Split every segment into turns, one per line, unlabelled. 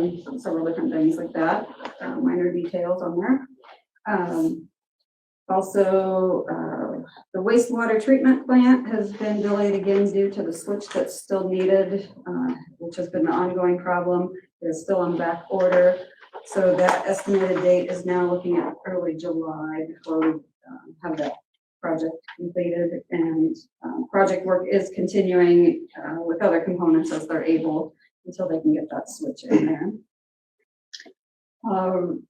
and several different things like that, uh, minor details on there. Um, also, uh, the wastewater treatment plant has been delayed again due to the switch that's still needed, uh, which has been an ongoing problem. It is still on back order. So that estimated date is now looking at early July before we um, have that project completed. And um, project work is continuing uh, with other components as they're able until they can get that switch in there. Um,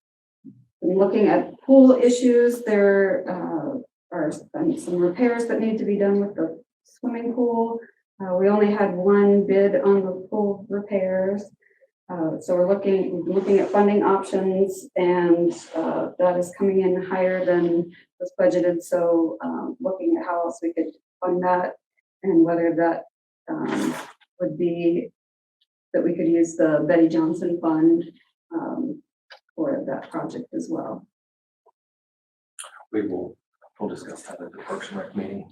Looking at pool issues, there uh, are some some repairs that need to be done with the swimming pool. Uh, We only had one bid on the pool repairs. Uh, So we're looking, looking at funding options and uh, that is coming in higher than was budgeted. So um, looking at how else we could fund that and whether that um, would be, that we could use the Betty Johnson Fund um, for that project as well.
We will, we'll discuss that at the Parks and Rec meeting.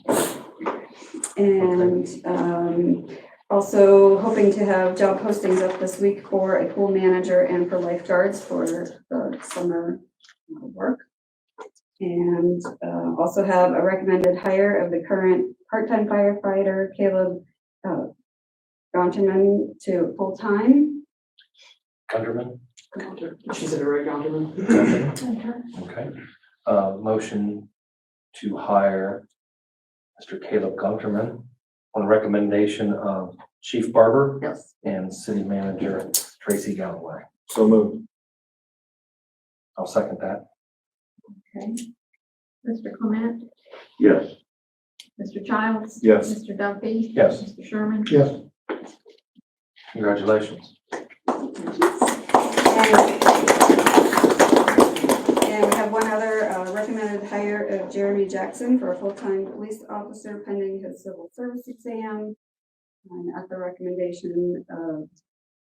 And um, also hoping to have job postings up this week for a pool manager and for lifeguards for the summer uh, work. And uh, also have a recommended hire of the current part-time firefighter Caleb uh, Gonterman to full-time.
Gunderman?
She's a direct alderman.
Okay. Uh, motion to hire Mr. Caleb Gunderman on recommendation of Chief Barber
Yes.
and City Manager Tracy Galloway.
So moved.
I'll second that.
Okay. Mr. Clement,
Yes.
Mr. Childs.
Yes.
Mr. Duffy.
Yes.
Mr. Sherman.
Yes.
Congratulations.
And and we have one other uh, recommended hire of Jeremy Jackson for a full-time police officer pending his civil service exam. And at the recommendation of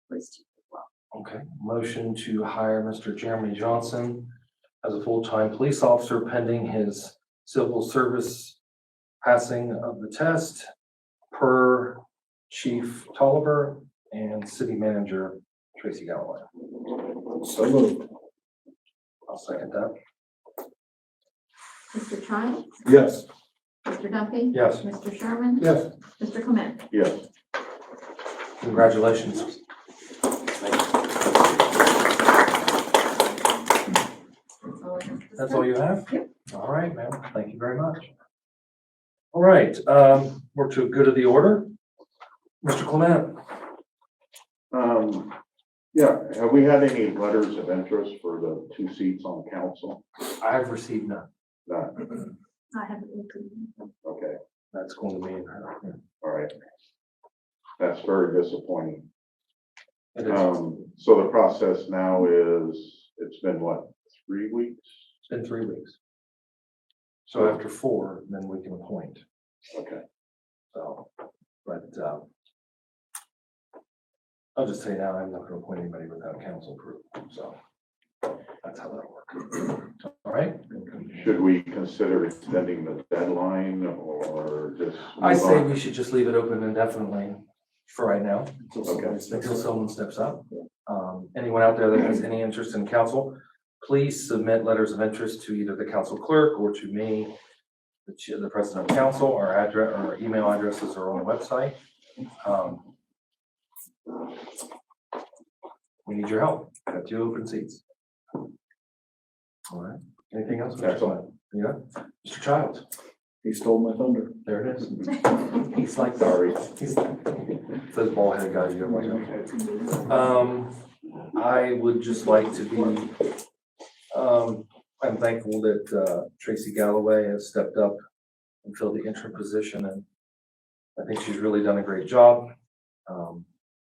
police chief as well.
Okay. Motion to hire Mr. Jeremy Johnson as a full-time police officer pending his civil service passing of the test per Chief Tolliver and City Manager Tracy Galloway.
So moved.
I'll second that.
Mr. Childs.
Yes.
Mr. Duffy.
Yes.
Mr. Sherman.
Yes.
Mr. Clement.
Yes.
Congratulations.
That's all I have to
That's all you have?
Yep.
All right, ma'am. Thank you very much. All right, um, we're to good of the order. Mr. Clement?
Um, yeah, have we had any letters of interest for the two seats on council?
I've received none.
Not,
I have it open.
okay,
That's going to be in her.
all right. That's very disappointing.
It is.
Um, so the process now is, it's been what, three weeks?
It's been three weeks. So after four, then we can appoint,
Okay,
so, but, um, I'll just say now, I'm not gonna appoint anybody without council approval, so that's how that works. All right?
should we consider extending the deadline or just?
I
move
say
on?
we should just leave it open indefinitely for right now,
Okay.
until someone steps up. Um, anyone out there that has any interest in council, please submit letters of interest to either the council clerk or to me, the chair, the president of council, our address, our email addresses are on the website. Um, We need your help. Got two open seats. All right. Anything else? Mr.
That's all.
Clement? Yeah. Mr. Childs,
He stole my thunder.
there it is. He's like,
Sorry.
He's those bald headed guys you don't like. Um, I would just like to be, um, I'm thankful that, uh, Tracy Galloway has stepped up and filled the interim position and I think she's really done a great job. Um,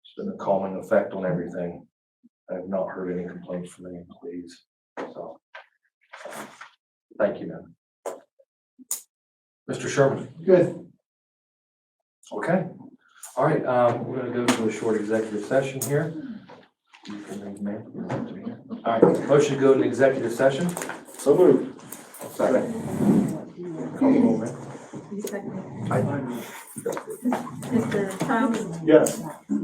she's been a calming effect on everything. I have not heard any complaints from any employees, so. um, Thank you, man. Mr. Sherman,
Good.
okay? All right, um, we're gonna go to a short executive session here. You can leave, ma'am. You don't have to be here. All right, motion to go into executive session.
So moved.
Second.
Mr. Childs.
Yes.